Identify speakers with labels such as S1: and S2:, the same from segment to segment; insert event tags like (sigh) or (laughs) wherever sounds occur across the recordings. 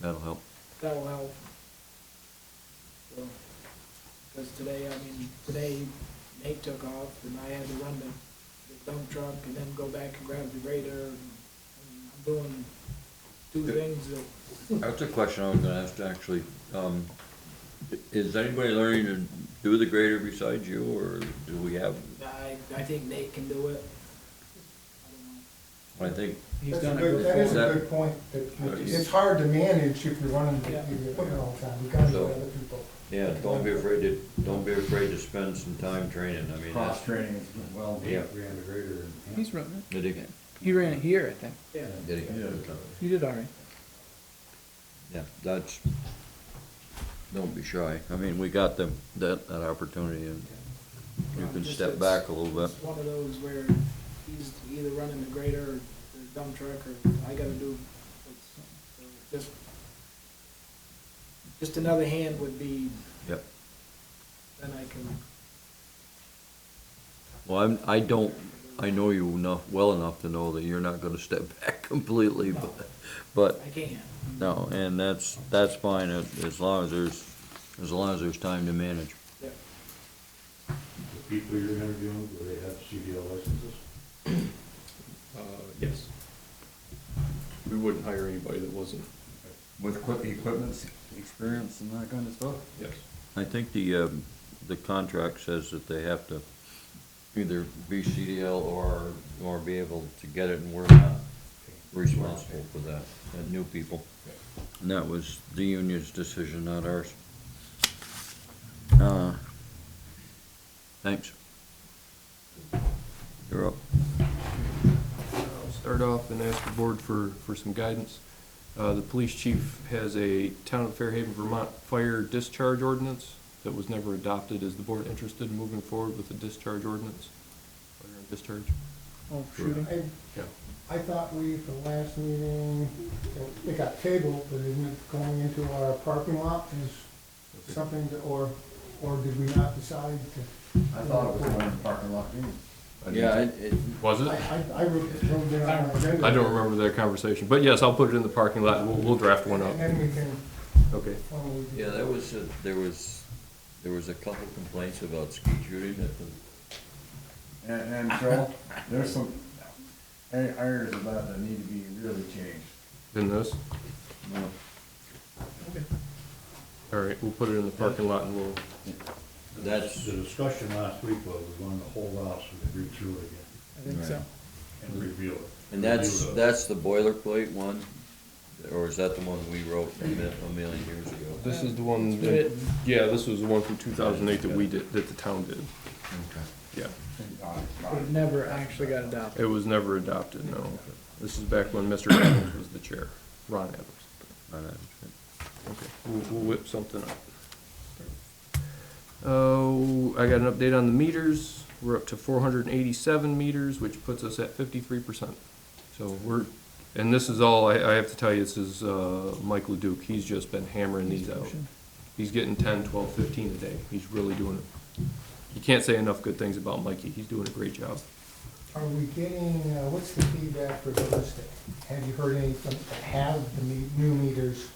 S1: That'll help.
S2: that'll help. Because today, I mean, today Nate took off and I had to run the, the dump truck and then go back and grab the grader. and I'm doing two
S3: Good.
S2: things that,
S3: That's a question I was gonna ask, actually. Um, i- is anybody learning to do the grader besides you, or do we have?
S2: I, I think Nate can do it. I don't know.
S3: I think,
S4: He's
S5: That's
S4: done
S5: a
S4: it
S5: good, that is
S4: before.
S3: That-
S5: a good point, that
S3: Uh,
S5: it-
S3: yes.
S5: it's hard to manage if you're running the
S2: Yeah.
S5: the equipment all the time, you gotta
S3: So-
S5: let other people.
S3: yeah, don't be afraid to, don't be afraid to spend some time training, I mean,
S4: Cross
S3: that's,
S4: training is well, we
S3: Yeah.
S4: have a grader. and-
S6: He's running
S3: did he?
S6: it. He ran it here, I think.
S2: Yeah,
S3: Did he?
S6: He did all right.
S3: Yeah, that's, don't be shy, I mean, we got them, that, that opportunity, and you
S2: Um,
S3: can
S2: just
S3: step
S2: it's-
S3: back a little bit.
S2: It's one of those where he's either running the grader or the dump truck or I gotta do, it's, so just, just another hand would be,
S3: Yep.
S2: then I can.
S3: Well, I'm, I don't, I know you enough, well enough to know that you're not gonna step (laughs) back completely, but, but
S2: I can.
S3: No, and that's, that's fine, uh, as long as there's, as long as there's time to manage.
S2: Yeah.
S7: The people you're interviewing, do they have CDL licenses?
S8: Uh, yes. We wouldn't hire anybody that wasn't,
S4: With equip- equipment experience and that kind of stuff?
S8: yes.
S3: I think the, um, the contract says that they have to either be CDL or, or be able to get it, and we're not responsible for that, that new people. And that was the union's decision, not ours. Uh, thanks. You're up.
S8: I'll start off and ask the board for, for some guidance. Uh, the police chief has a town of Fairhaven, Vermont fire discharge ordinance that was never adopted. Is the board interested in moving forward with the discharge ordinance? Fire and discharge?
S6: Oh, shooting.
S5: I,
S8: Yeah.
S5: I thought we, at the last meeting, it- it got tabled, but isn't it going into our parking lot is something that, or, or did we not decide to?
S4: I thought it was going in the parking lot, too.
S3: Yeah, it, it,
S8: Was
S5: I,
S8: it?
S5: I, I wrote wrote it on our agenda.
S8: I don't remember that conversation, but yes, I'll put it in the parking lot. We'll, we'll draft one up.
S5: And then we can,
S8: Okay.
S5: formally do
S3: Yeah, there was, a- there was, there was a couple complaints about ski shooting at the,
S4: And,
S3: (laughs)
S4: and Joel, there's some a- areas of that that need to be really changed.
S3: (laughs)
S8: In this?
S4: No.
S8: All right, we'll put it in the parking lot and we'll,
S3: That's-
S7: The discussion last week was we wanted to hold off so we could read through it again
S6: I think so.
S7: and review it.
S3: and that's,
S7: Review the-
S3: that's the boilerplate one? Or is that the one we wrote a mi- a million years ago?
S8: this is the one, that- yeah, this was the one from two thousand eight that we did, that the town did. Yeah,
S6: But never actually got adopted.
S8: it was never adopted, no. This is back when (coughs) Mr. Adams was the chair, Ron Adams.
S3: I know.
S8: Okay, we'll, we'll whip something up. Oh, I got an update on the meters. We're up to four hundred and eighty-seven meters, which puts us at fifty-three percent. So we're, and this is all, I, I have to tell you, this is, uh, Mike Leduc. He's just been hammering these out. He's getting ten, twelve, fifteen a day. He's really doing it. You can't say enough good things about Mikey. He's doing a great job.
S5: Are we getting, uh, what's the feedback for Holistic? Have you heard any from, that have the me- new meters?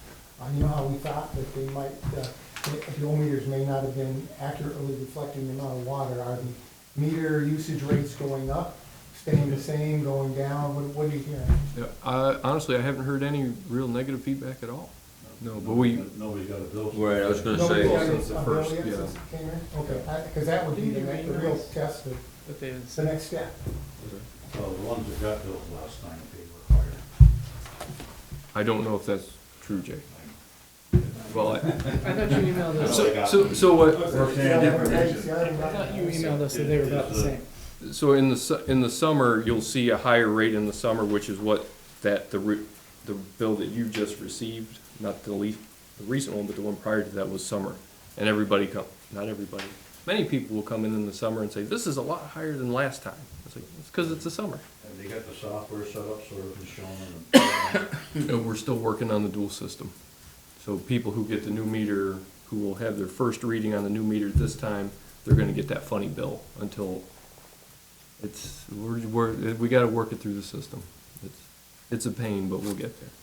S5: Uh, You know how we thought that they might, uh, the the old meters may not have been accurately reflecting the amount of water. Are the meter usage rates going up, staying the same, going down? What what are you hearing?
S8: Yeah, I, honestly, I haven't heard any real negative feedback at all. No, but we,
S7: Nobody's got a bill.
S3: Right, I was gonna
S5: Nobody
S3: say,
S5: got
S8: since the
S5: a bill
S8: first,
S5: yet
S8: yeah.
S5: since it came in? Okay, because that would be the next- the real test, of-
S6: But they didn't
S5: it's the
S6: say.
S5: next step.
S7: Well, the ones that got bills last night, they were higher.
S8: I don't know if that's true, Jay. Well,
S4: (laughs)
S8: I,
S6: I thought you emailed us.
S7: So-
S8: So, so, so what,
S4: We're saying different things.
S6: I thought you emailed us that they were about the same.
S8: so in the, su- in the summer, you'll see a higher rate in the summer, which is what that, the, re- the bill that you just received, not the le- the recent one, but the one prior to that was summer. And everybody come, not everybody, many people will come in in the summer and say, this is a lot higher than last time. It's like, it's because it's the summer.
S7: And they got the software set up so it was shown in the.
S8: And Uh, we're still working on the dual system. So people who get the new meter, who will have their first reading on the new meter this time, they're gonna get that funny bill until it's, we're, we're, we gotta work it through the system. It's, it's a pain, but we'll get there.